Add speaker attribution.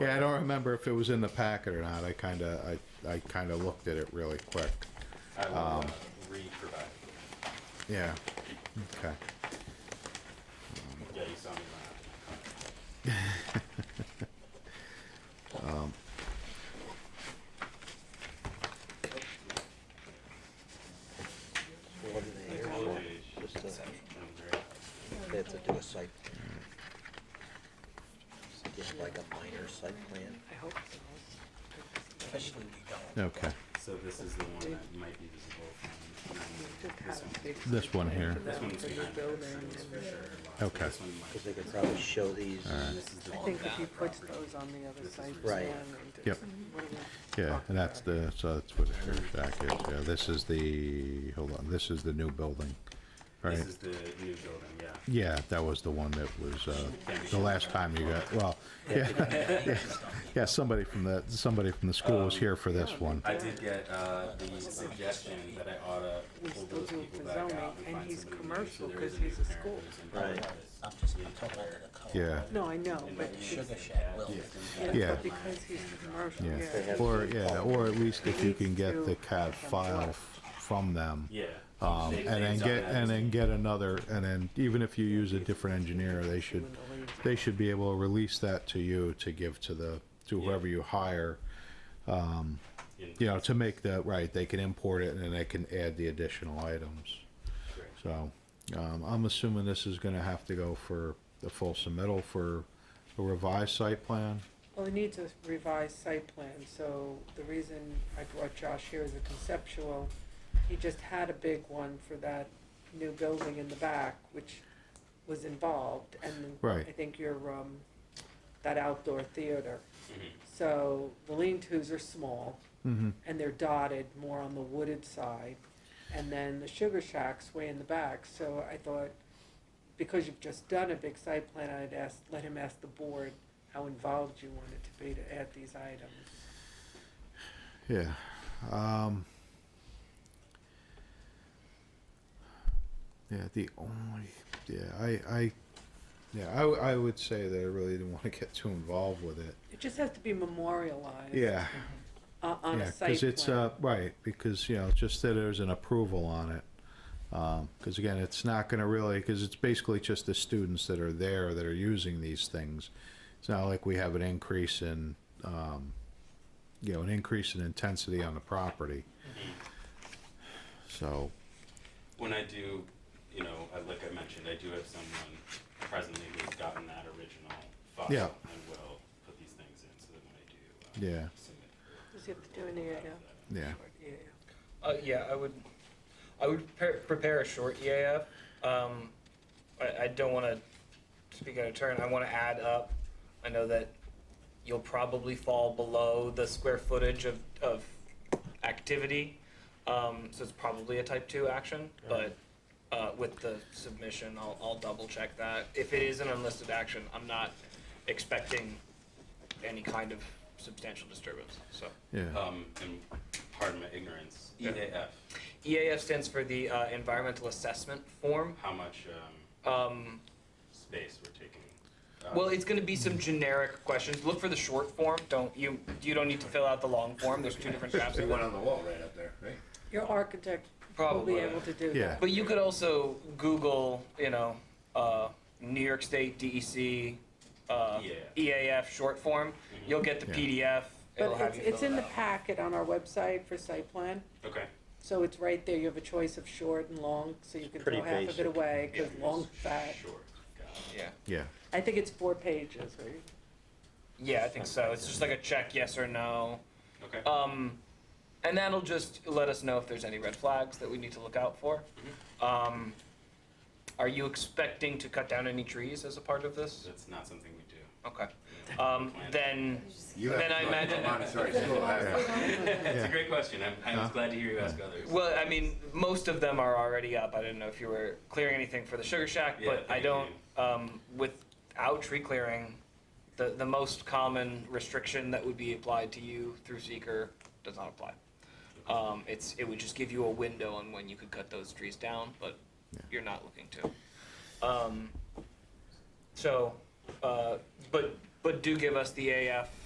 Speaker 1: Yeah, I don't remember if it was in the packet or not. I kind of, I, I kind of looked at it really quick.
Speaker 2: I will
Speaker 1: Um,
Speaker 2: uh, re-provide.
Speaker 1: Yeah. Okay.
Speaker 2: Yeah, you saw me laugh.
Speaker 3: What are they here
Speaker 2: Blue
Speaker 3: for?
Speaker 2: Ridge,
Speaker 3: Just to,
Speaker 2: I'm great.
Speaker 3: they have to do a site. Just like a minor site plan,
Speaker 4: I hope so.
Speaker 3: especially we don't.
Speaker 1: Okay.
Speaker 2: So this is the one that might be visible from
Speaker 4: Just
Speaker 2: nine-
Speaker 4: have a big.
Speaker 1: This one here.
Speaker 2: This one's
Speaker 4: For the
Speaker 2: behind
Speaker 4: building
Speaker 2: us,
Speaker 4: and
Speaker 2: so for
Speaker 4: then-
Speaker 2: sure.
Speaker 1: Okay.
Speaker 2: This one might.
Speaker 3: Because they could probably show these,
Speaker 2: This is the
Speaker 4: I
Speaker 2: one
Speaker 4: think if
Speaker 2: that
Speaker 4: you put
Speaker 2: property.
Speaker 4: those on the other
Speaker 2: This
Speaker 4: side.
Speaker 2: is-
Speaker 3: Right.
Speaker 1: Yep. Yeah, and that's the, so that's what her shack is. Yeah, this is the, hold on, this is the new building,
Speaker 2: This
Speaker 1: right?
Speaker 2: is the new building, yeah.
Speaker 1: Yeah, that was the one that was, uh, the last time you got, well, yeah. Yeah, somebody from the, somebody from the school was here for this one.
Speaker 2: I did get uh, the suggestion that I ought to
Speaker 4: We
Speaker 2: pull
Speaker 4: still
Speaker 2: those
Speaker 4: do it
Speaker 2: people
Speaker 4: for
Speaker 2: back
Speaker 4: zoning,
Speaker 2: out and
Speaker 4: and
Speaker 2: find
Speaker 4: he's
Speaker 2: somebody. new, so
Speaker 4: commercial
Speaker 2: there is
Speaker 4: 'cause he's
Speaker 2: new
Speaker 4: a
Speaker 2: parent
Speaker 4: school.
Speaker 2: who's in
Speaker 3: Right.
Speaker 2: charge of
Speaker 1: Yeah,
Speaker 4: No, I know, but
Speaker 2: this.
Speaker 4: it's
Speaker 3: Sugar Shack will.
Speaker 1: Yeah.
Speaker 4: but because he's commercial,
Speaker 1: yeah.
Speaker 4: yeah.
Speaker 1: Or, yeah, or at least if you can get the CAD file f- from them.
Speaker 2: Yeah.
Speaker 1: Um,
Speaker 2: They-
Speaker 1: and then
Speaker 2: they've done
Speaker 1: get,
Speaker 2: that.
Speaker 1: and then get another, and then even if you use a different engineer, they should, they should be able to release that to you to give to the, to whoever you hire.
Speaker 2: In-
Speaker 1: You know, to make the, right, they can import it and then they can add the additional items.
Speaker 2: Great.
Speaker 1: So, um, I'm assuming this is gonna have to go for the full submittal for a revised site plan?
Speaker 4: Well, it needs a revised site plan, so the reason I brought Josh here is a conceptual. He just had a big one for that new building in the back, which was involved, and then
Speaker 1: Right.
Speaker 4: I think your, um, that outdoor theater. So the lean-tos are small,
Speaker 1: Mm-hmm.
Speaker 4: and they're dotted more on the wooded side. And then the sugar shack's way in the back, so I thought, because you've just done a big site plan, I'd ask, let him ask the board how involved you want it to be to add these items.
Speaker 1: Yeah. Um, yeah, the only yeah, I I yeah, I, w- I would say that I really didn't want to get too involved with it.
Speaker 4: It just has to be memorialized.
Speaker 1: Yeah.
Speaker 4: o- On
Speaker 1: Yeah,
Speaker 4: a site
Speaker 1: because it's
Speaker 4: plan.
Speaker 1: uh right, because you know, just that there's an approval on it. Because again, it's not going to really because it's basically just the students that are there that are using these things. It's not like we have an increase in um, you know an increase in intensity on the property. So
Speaker 2: When I do, you know, I- like I mentioned, I do have someone presently who's gotten that original file
Speaker 1: Yeah.
Speaker 2: and will put these things in so that when I do. uh,
Speaker 1: yeah,
Speaker 2: submit for-
Speaker 4: Does he have to do any, uh,
Speaker 1: yeah,
Speaker 4: yeah.
Speaker 5: Uh, yeah, I would, I would prepare, prepare a short EAF. Um, I, I don't want to speak out of turn. I want to add up. I know that you'll probably fall below the square footage of, of activity. Um, so it's probably a type two action, but, uh, with the submission, I'll, I'll double check that. If it is an unlisted action, I'm not expecting any kind of substantial disturbance, so.
Speaker 1: yeah.
Speaker 2: Um, and pardon my ignorance, E
Speaker 5: Yeah.
Speaker 2: EAF,
Speaker 5: EAF E stands for the uh, Environmental Assessment Form.
Speaker 2: how much, um,
Speaker 5: Um,
Speaker 2: space we're taking? Uh,
Speaker 5: well, it's going to be some generic questions. Look for the short form. Don't you? You don't need to fill out the long form. There's two different tabs.
Speaker 6: They went on the wall right up there, right?
Speaker 4: Your architect will
Speaker 5: Probably.
Speaker 4: be able to do
Speaker 1: Yeah.
Speaker 4: that.
Speaker 5: But you could also Google, you know, uh, New York State DEC uh,
Speaker 2: Yeah.
Speaker 5: EAF short form. You'll get the
Speaker 1: Yeah.
Speaker 5: PDF. It'll
Speaker 4: But
Speaker 5: have
Speaker 4: it's,
Speaker 5: you
Speaker 4: it's in
Speaker 5: fill it
Speaker 4: the
Speaker 5: out.
Speaker 4: packet on our website for site plan.
Speaker 2: Okay.
Speaker 4: So it's right there, you have a choice of short and long, so you can
Speaker 3: pretty
Speaker 4: throw half of it
Speaker 3: basic.
Speaker 4: away, because long fat.
Speaker 2: Sure, got it.
Speaker 5: Yeah.
Speaker 1: Yeah,
Speaker 4: I think it's four pages, right?
Speaker 5: Yeah, I think so. It's just like a check, yes or no.
Speaker 2: Okay,
Speaker 5: Um, and that'll just let us know if there's any red flags that we need to look out for. Um, are you expecting to cut down any trees as a part of this?
Speaker 2: that's not something we do.
Speaker 5: Okay. Um, then,
Speaker 6: You
Speaker 5: Then
Speaker 6: have
Speaker 5: I
Speaker 6: to go
Speaker 5: imagine-
Speaker 6: to Montessori school. I-
Speaker 2: It's a
Speaker 1: yeah,
Speaker 2: great question, I'm, I was glad to hear you ask others.
Speaker 5: well, I mean, most of them are already up. I didn't know if you were clearing anything for the sugar shack,
Speaker 2: Yeah,
Speaker 5: but I
Speaker 2: thank
Speaker 5: don't. Um, without tree clearing, the the most common restriction that would be applied to you through seeker does not apply. Um, it's it would just give you a window on when you could cut those trees down, but
Speaker 1: Yeah.
Speaker 5: you're not looking to. Um, so, uh, but but do give us the AF